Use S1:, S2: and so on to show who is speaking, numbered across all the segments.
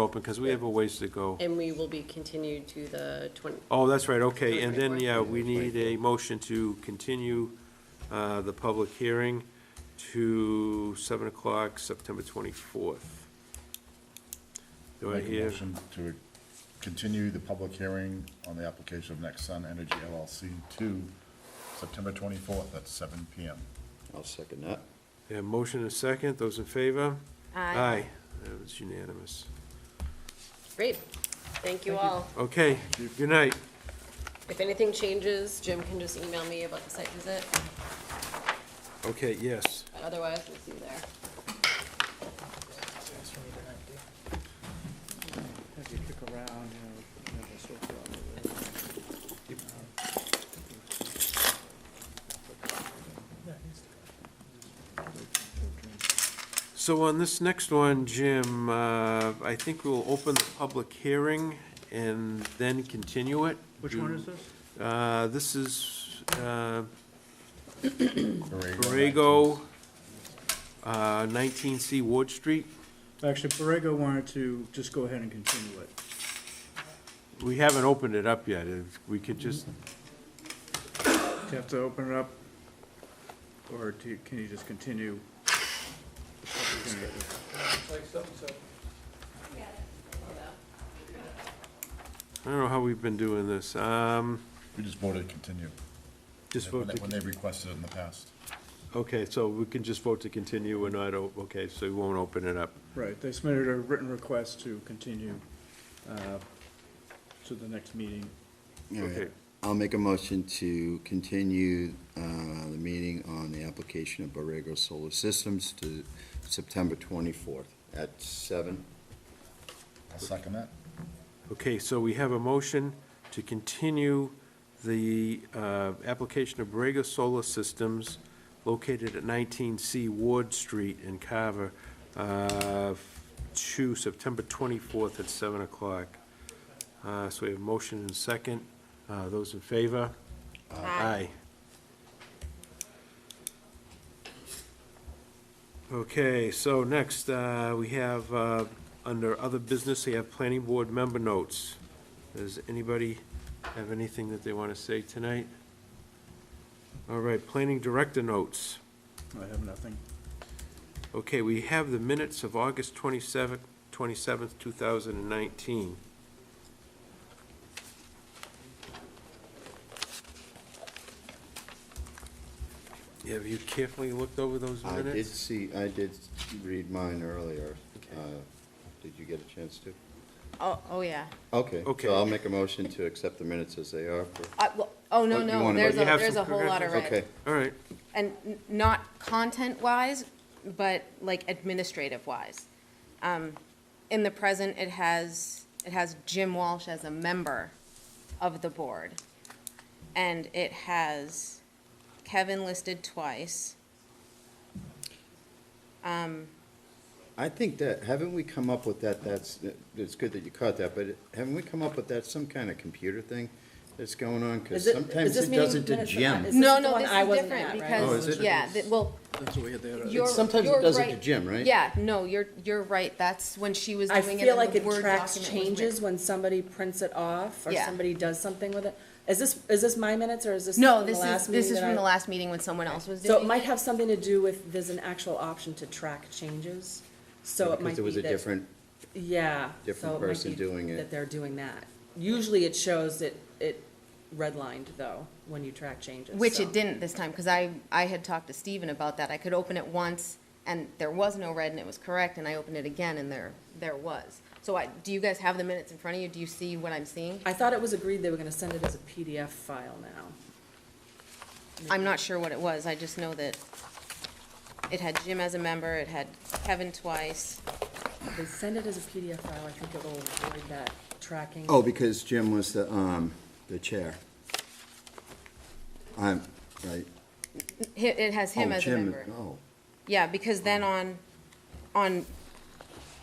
S1: open, because we have a ways to go.
S2: And we will be continued to the 20,
S1: Oh, that's right, okay, and then,
S2: Twenty-fourth.
S1: yeah, we need a motion to continue uh, the public hearing to seven o'clock, September twenty-fourth. Do I
S3: Make a
S1: hear,
S3: motion To continue the public hearing on the application of Next Sun Energy LLC to September 24th at seven PM.
S4: I'll second that.
S1: a motion and a second, those in favor?
S2: Aye.
S1: That was unanimous.
S2: great. Thank you all.
S1: Okay, good night.
S2: If anything changes, Jim can just email me about the site visit.
S1: Okay, yes.
S2: But Otherwise, we'll see you there.
S5: That's what we did not do. Have you kick around, you know, you know, the sofa over there.
S1: So on this next one, Jim, uh, I think we'll open the public hearing and then continue it.
S5: Which one is this?
S1: Uh, This is uh,
S3: Borrego.
S1: Borrego, uh, 19C Ward Street.
S6: Actually, Borrego wanted to just go ahead and continue it.
S1: We haven't opened it up yet. If we could just,
S6: Do you have to open it up? Or do you- can you just continue?
S1: I don't know how we've been doing this. Um,
S3: We just voted to continue.
S1: Just
S3: When
S1: vote
S3: they-
S1: to,
S3: When they requested it in the past.
S1: okay, so we can just vote to continue. We're not, o- okay, so we won't open it up.
S6: Right, they submitted a written request to continue uh, to the next meeting.
S4: All right.
S1: Okay.
S4: I'll make a motion to continue uh, the meeting on the application of Borrego Solar Systems to September 24th at seven.
S3: I'll second that.
S1: Okay, so we have a motion to continue the uh, application of Borrego Solar Systems located at 19C Ward Street in Carver uh, to September 24th at 7 o'clock. Uh, So we have motion and second. Uh, Those in favor? Aye. Okay, so next, uh, we have, uh, under other business, we have planning board member notes. Does anybody have anything that they want to say tonight? All right, planning director notes.
S6: I have nothing.
S1: Okay, we have the minutes of August twenty-seventh, twenty-seventh, two thousand and nineteen. Have you carefully looked over those
S4: I
S1: minutes?
S4: did see, I did read mine earlier.
S1: Okay.
S4: Uh, Did you get a chance to?
S7: Oh, oh, yeah.
S4: Okay.
S1: Okay.
S4: So I'll make a motion to accept the minutes as they are. for-
S7: I- well, Oh,
S4: Oh,
S7: no,
S4: you
S7: no,
S4: wanna-
S7: there's
S1: You
S7: a,
S1: have
S7: there's a
S1: some
S7: whole lot of
S1: corrections?
S7: red.
S4: Okay,
S1: All right,
S7: And n- not content-wise, but like administrative-wise. Um, In the present, it has, it has Jim Walsh as a member of the board. And it has Kevin listed twice.
S4: I think that, haven't we come up with that, that's, it's good that you caught that, but haven't we come up with that, some kind of computer thing that's going on? Because
S2: Is it- is
S4: sometimes
S2: this
S4: it
S2: meeting
S4: doesn't
S2: minutes that I-
S4: gem.
S2: is
S7: No,
S2: the
S7: no,
S2: one
S7: this
S2: I
S7: is
S2: wasn't
S7: different
S2: at, right?
S4: Oh,
S7: because,
S4: is it?
S7: yeah, th- well,
S6: That's what we had there.
S7: you're,
S4: sometimes it
S7: you're
S4: does it to
S7: right.
S4: Jim, right?
S7: Yeah, no, you're, you're right. That's when she was
S2: I
S7: doing it
S2: feel
S7: and
S2: like
S7: the
S2: it
S7: Word
S2: tracks
S7: document was with-
S2: changes when somebody prints it off or
S7: Yeah.
S2: somebody does something with it. Is this, is this my minutes or is this?
S7: No,
S2: from the
S7: this is,
S2: last
S7: this
S2: meeting
S7: is
S2: that
S7: from
S2: I-
S7: the last meeting when someone else was doing
S2: So
S7: it.
S2: it might have something to do with, there's an actual option to track changes, so it might be
S4: Because it was a
S2: that-
S4: different,
S2: Yeah.
S4: different
S2: so it might
S4: person
S2: be
S4: doing it.
S2: That they're doing that. Usually it shows that it redlined though, when you track changes.
S7: Which
S2: so.
S7: it didn't this time, because I, I had talked to Steven about that. I could open it once, and there was no red, and it was correct, and I opened it again, and there, there was. So I, do you guys have the minutes in front of you? Do you see what I'm seeing?
S2: I thought it was agreed they were gonna send it as a PDF file now.
S7: I'm not sure what it was. I just know that it had Jim as a member, it had Kevin twice.
S2: If They send it as a PDF file, I think it'll avoid that tracking.
S4: Oh, because Jim was the, um, the chair. I'm, right.
S7: Hi- It has him
S4: Oh,
S7: as a
S4: Jim-
S7: member.
S4: Oh,
S7: Yeah, because then on, on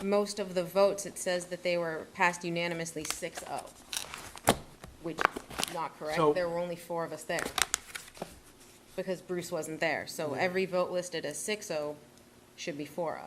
S7: most of the votes, it says that they were passed unanimously 6-0, which is not correct.
S1: So-
S7: There were only four of us there, because Bruce wasn't there. So every vote listed as 6-0 should be oh. 4-0.